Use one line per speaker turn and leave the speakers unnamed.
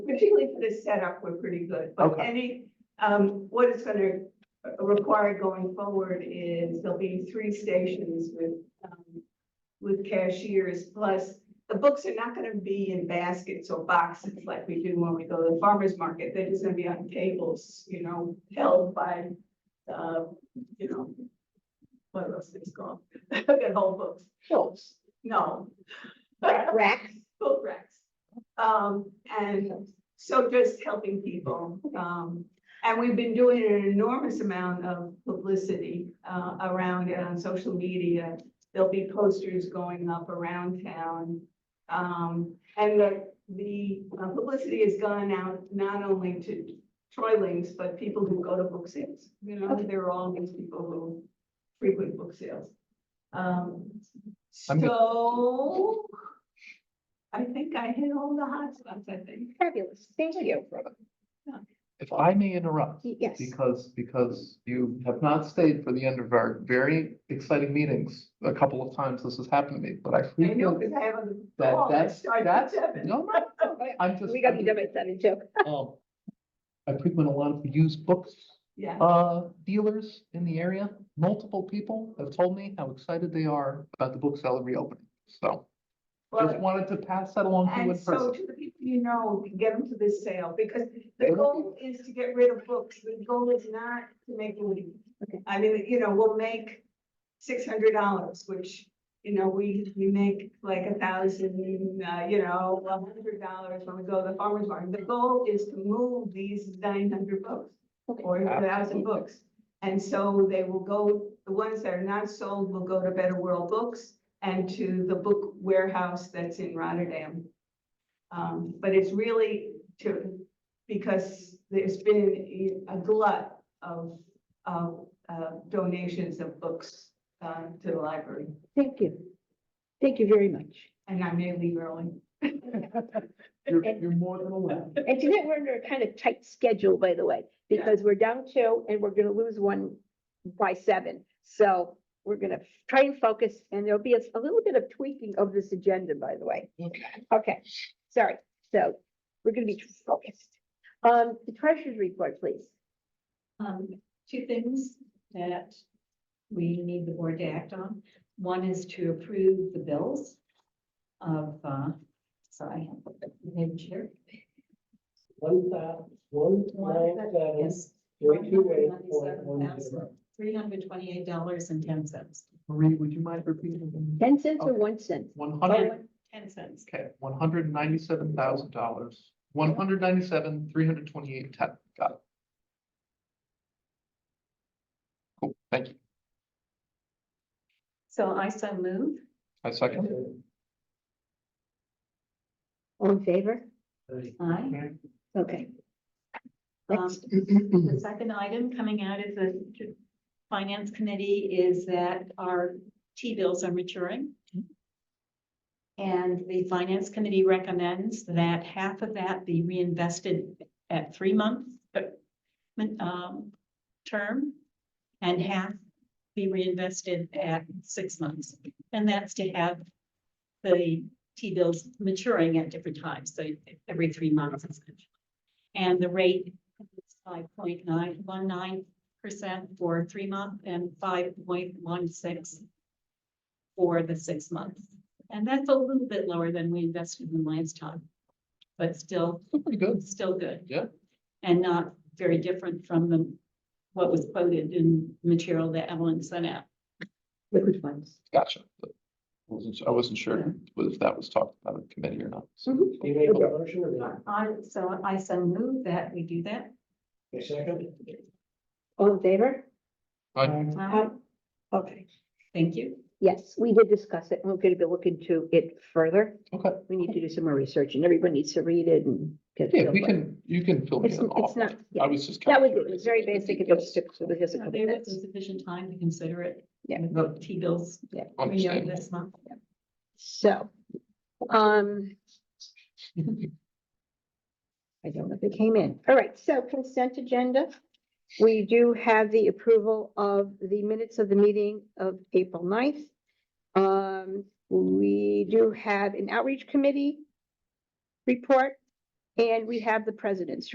Certainly for this setup, we're pretty good, but
Okay.
any, um, what it's gonna require going forward is there'll be three stations with, um, with cashiers, plus the books are not gonna be in baskets or boxes like we do when we go to the farmer's market. They're just gonna be on tables, you know, held by, uh, you know, what are those things called? That whole books.
Schultz.
No.
Rex,
boat racks. Um, and so just helping people. Um, and we've been doing an enormous amount of publicity, uh, around it on social media. There'll be posters going up around town. Um, and the, the uh, publicity has gone out not only to Troilings, but people who go to book sales. You know,
Okay.
there are all these people who frequent book sales. Um,
I'm gonna-
so I think I hit all the hot spots, I think.
fabulous, thank you.
If I may interrupt,
Yes,
because, because you have not stayed for the end of our very exciting meetings. A couple of times this has happened to me, but I
I know, Oh,
frequently,
because I have a.
that,
call that
that's,
starts at
that's,
seven.
no, no, I'm just.
Oh, we got to do it, that joke.
um, I frequent a lot of used books,
Yeah,
uh, dealers in the area. Multiple people have told me how excited they are about the bookseller reopening. So just
well,
wanted to pass that along to you in
and so
person.
to the people you know, get them to this sale, because the
It'll-
goal is to get rid of books. The goal is not to make money.
Okay.
I mean, you know, we'll make six hundred dollars, which, you know, we, we make like a thousand, uh, you know, a hundred dollars when we go to the farmer's market. The goal is to move these nine hundred books.
Okay.
or a thousand
Absolutely.
books. And so they will go, the ones that are not sold will go to Better World Books and to the book warehouse that's in Rotterdam. Um, but it's really to, because there's been a glut of, of, uh, donations of books, uh, to the library.
Thank you. Thank you very much.
And I may leave early.
You're, you're more than allowed.
And tonight we're under a kind of tight schedule, by the way,
Yeah.
because we're down two and we're gonna lose one by seven. So we're gonna try and focus and there'll be a, a little bit of tweaking of this agenda, by the way.
Okay.
Okay, sorry. So we're gonna be focused. Um, the treasurer's report, please.
Um, two things that we need the board to act on. One is to approve the bills of, uh, sorry, head chair.
One thou, one
One
nine seven,
Yes.
three two eight four one zero.
Three hundred twenty-eight dollars and ten cents.
Marie, would you mind repeating?
Ten cents or
Okay.
one cent?
One hundred.
Ten cents.
Okay, one hundred ninety-seven thousand dollars, one hundred ninety-seven, three hundred twenty-eight, ten, got it. Cool, thank you.
So I so move.
I second.
All in favor?
Aye.
Okay.
Um,
Next.
The second item coming out of the finance committee is that our T-bills are maturing. And the finance committee recommends that half of that be reinvested at three month uh, um, term and half be reinvested at six months. And that's to have the T-bills maturing at different times, so every three months. essentially. And the rate five point nine one nine percent for three month and five point one six for the six months. And that's a little bit lower than we invested in last time, but still,
Still Pretty good.
still good.
Yeah.
And not very different from the, what was quoted in material that Evelyn sent out.
Liquid funds.
Gotcha. Wasn't, I wasn't sure if that was talked about in committee or not. so.
Mhm.
Do you make a motion or not?
I, so I so move that we do that.
A second?
All in favor?
Aye.
Uh,
Okay.
Thank you.
Yes, we did discuss it. and We're gonna be looking into it further.
Okay,
We need to do some more research and everyone needs to read it and. get a
yeah,
feel
we
for it.
can, you can fill me
It's-
in
it's
off.
not- yeah.
I was just.
That
kinda
was, it
curious
was very
about the
basic. It
details.
was just, it was just a
Uh,
couple
There was
minutes.
sufficient time to consider it.
Yeah.
With the T-bills, you know,
Understand.
this month.
So, um. I don't know if it came in. All right, so consent agenda. We do have the approval of the minutes of the meeting of April 9th. Um, we do have an outreach committee report. And we have the president's